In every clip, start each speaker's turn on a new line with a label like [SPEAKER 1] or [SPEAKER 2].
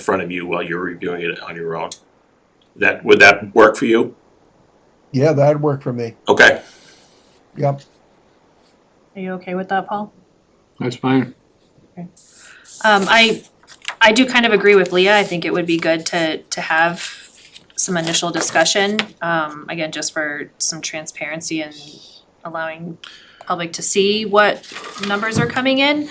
[SPEAKER 1] in front of you while you're reviewing it on your own. That, would that work for you?
[SPEAKER 2] Yeah, that'd work for me.
[SPEAKER 1] Okay,
[SPEAKER 2] Yep.
[SPEAKER 3] Are you okay with that, Paul?
[SPEAKER 4] That's fine.
[SPEAKER 3] Um, I, I do kind of agree with Leah, I think it would be good to, to have some initial discussion, um, again, just for some transparency and allowing public to see what numbers are coming in.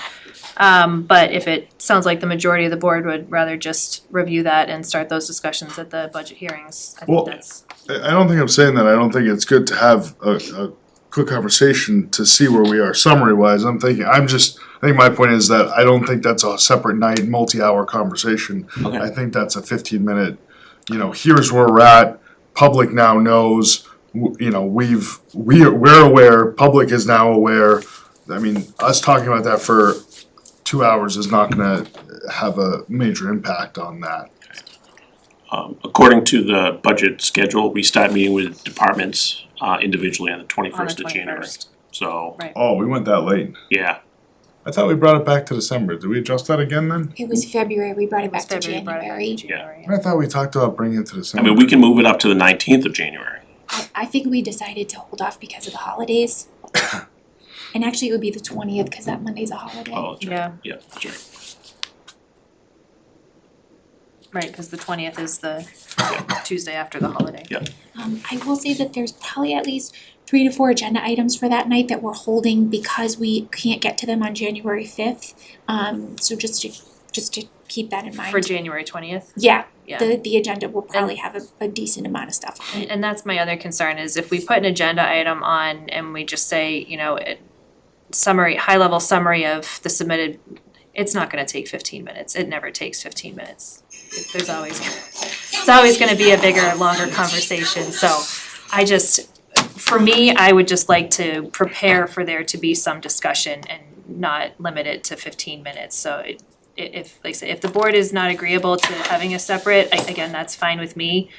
[SPEAKER 3] Um, but if it sounds like the majority of the board would rather just review that and start those discussions at the budget hearings, I
[SPEAKER 5] Well-
[SPEAKER 3] think that's,
[SPEAKER 5] I I don't think I'm saying that, I don't think it's good to have a, a quick conversation to see where we are summary wise, I'm thinking, I'm just, I think my point is that I don't think that's a separate night, multi-hour conversation.
[SPEAKER 1] Okay.
[SPEAKER 5] I think that's a fifteen minute, you know, here's where we're at, public now knows, w- you know, we've, we, are- we're aware, public is now aware. I mean, us talking about that for two hours is not gonna have a major impact on that.
[SPEAKER 1] um, according to the budget schedule, we start meeting with departments, uh, individually on the
[SPEAKER 3] on the
[SPEAKER 1] twenty-first of January.
[SPEAKER 3] twenty-first.
[SPEAKER 1] So,
[SPEAKER 3] Right.
[SPEAKER 5] Oh, we went that late.
[SPEAKER 1] yeah,
[SPEAKER 5] I thought we brought it back to December. Did we adjust that again then?
[SPEAKER 6] It was February, we brought it back to
[SPEAKER 3] February, brought it back to
[SPEAKER 6] January.
[SPEAKER 3] January.
[SPEAKER 5] I thought we talked about bringing it to
[SPEAKER 1] I
[SPEAKER 5] December.
[SPEAKER 1] mean, we can move it up to the nineteenth of January.
[SPEAKER 6] I, I think we decided to hold off because of the holidays. And actually, it would be the twentieth, cause that Monday's a holiday.
[SPEAKER 1] Oh, that's right,
[SPEAKER 3] Yeah,
[SPEAKER 1] yeah, that's right.
[SPEAKER 3] right, cause the twentieth is the Tuesday after the holiday.
[SPEAKER 6] Um, I will say that there's probably at least three to four agenda items for that night that we're holding because we can't get to them on January fifth. Um, so just to, just to keep that in mind.
[SPEAKER 3] For January twentieth,
[SPEAKER 6] Yeah,
[SPEAKER 3] yeah.
[SPEAKER 6] the, the agenda will probably have a, a decent amount of stuff on it.
[SPEAKER 3] And that's my other concern is if we put an agenda item on and we just say, you know, it summary, high level summary of the submitted, it's not gonna take fifteen minutes. It never takes fifteen minutes. There's always, it's always gonna be a bigger, longer conversation, so I just, for me, I would just like to prepare for there to be some discussion and not limit it to fifteen minutes, so it i- if, like I say, if the board is not agreeable to having a separate, I- again, that's fine with me.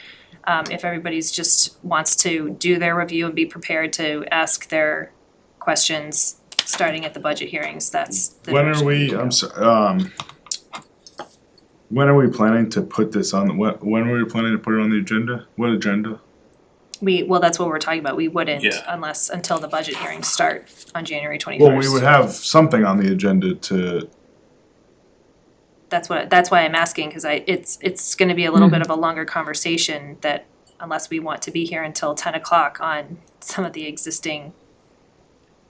[SPEAKER 3] Um, if everybody's just wants to do their review and be prepared to ask their questions, starting at the budget hearings, that's the
[SPEAKER 5] When are
[SPEAKER 3] direction
[SPEAKER 5] we,
[SPEAKER 3] can
[SPEAKER 5] I'm
[SPEAKER 3] go.
[SPEAKER 5] sorry, um, when are we planning to put this on, the when, when are we planning to put it on the agenda? What agenda?
[SPEAKER 3] We, well, that's what we're talking about, we wouldn't
[SPEAKER 1] Yeah.
[SPEAKER 3] unless, until the budget hearings start on January twenty-first.
[SPEAKER 5] Well, we would have something on the agenda to,
[SPEAKER 3] That's what, that's why I'm asking, cause I, it's, it's gonna be a little bit of a longer conversation that unless we want to be here until ten o'clock on some of the existing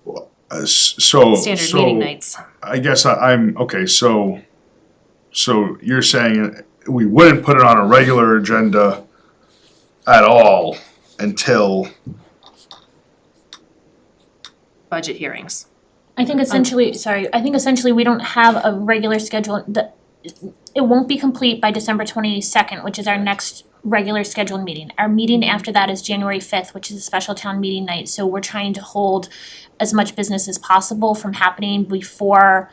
[SPEAKER 5] uh, s- so,
[SPEAKER 3] standard meeting
[SPEAKER 5] so,
[SPEAKER 3] nights.
[SPEAKER 5] I guess I, I'm, okay, so, so you're saying we wouldn't put it on a regular agenda at all until,
[SPEAKER 3] budget hearings.
[SPEAKER 7] I think essentially, sorry, I think essentially we don't have a regular schedule, the, it won't be complete by December twenty-second, which is our next regular scheduled meeting. Our meeting after that is January fifth, which is a special town meeting night, so we're trying to hold as much business as possible from happening before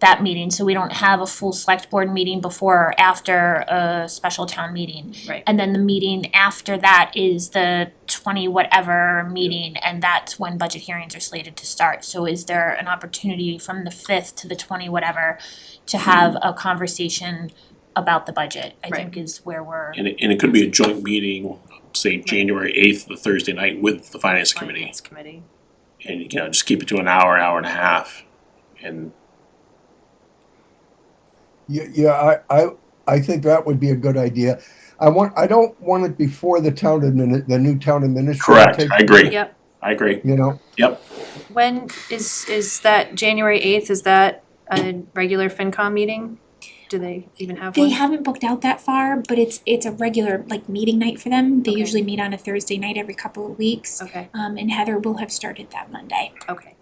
[SPEAKER 7] that meeting, so we don't have a full select board meeting before or after a special town meeting.
[SPEAKER 3] Right.
[SPEAKER 7] And then the meeting after that is the twenty whatever meeting, and that's when budget hearings are slated to start. So is there an opportunity from the fifth to the twenty whatever to have a conversation about the budget, I
[SPEAKER 3] Right.
[SPEAKER 7] think is where we're.
[SPEAKER 1] And it, and it could be a joint meeting, say, January eighth, the Thursday night with the finance committee.
[SPEAKER 3] Finance committee.
[SPEAKER 1] And, you know, just keep it to an hour, hour and a half. And,
[SPEAKER 2] Yeah, yeah, I, I, I think that would be a good idea. I want, I don't want it before the town admin, the new town administrator.
[SPEAKER 1] correct,
[SPEAKER 2] takes-
[SPEAKER 1] I agree,
[SPEAKER 3] Yep,
[SPEAKER 1] I agree.
[SPEAKER 2] You know,
[SPEAKER 3] when is, is that January eighth, is that a regular FinCom meeting? Do they even have one?
[SPEAKER 6] They haven't booked out that far, but it's, it's a regular, like, meeting night for them. They
[SPEAKER 3] Okay.
[SPEAKER 6] usually meet on a Thursday night every couple of weeks.
[SPEAKER 3] Okay,
[SPEAKER 6] Um, and Heather will have started that Monday.
[SPEAKER 3] okay.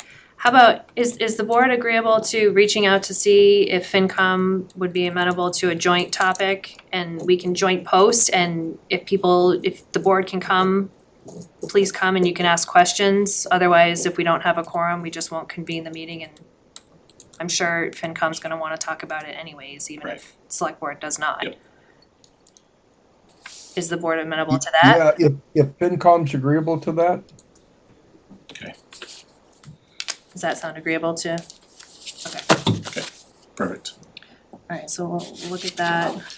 [SPEAKER 3] How about, is, is the board agreeable to reaching out to see if FinCom would be amenable to a joint topic? And we can joint post and if people, if the board can come, please come and you can ask questions. Otherwise, if we don't have a quorum, we just won't convene the meeting and I'm sure FinCom's gonna wanna talk about it anyways, even if select board does not.
[SPEAKER 1] Yep.
[SPEAKER 3] Is the board amenable to that?
[SPEAKER 2] yeah, if, if FinCom's agreeable to that,
[SPEAKER 3] Does that sound agreeable to? Okay,
[SPEAKER 1] Perfect.
[SPEAKER 3] alright, so we'll look at that.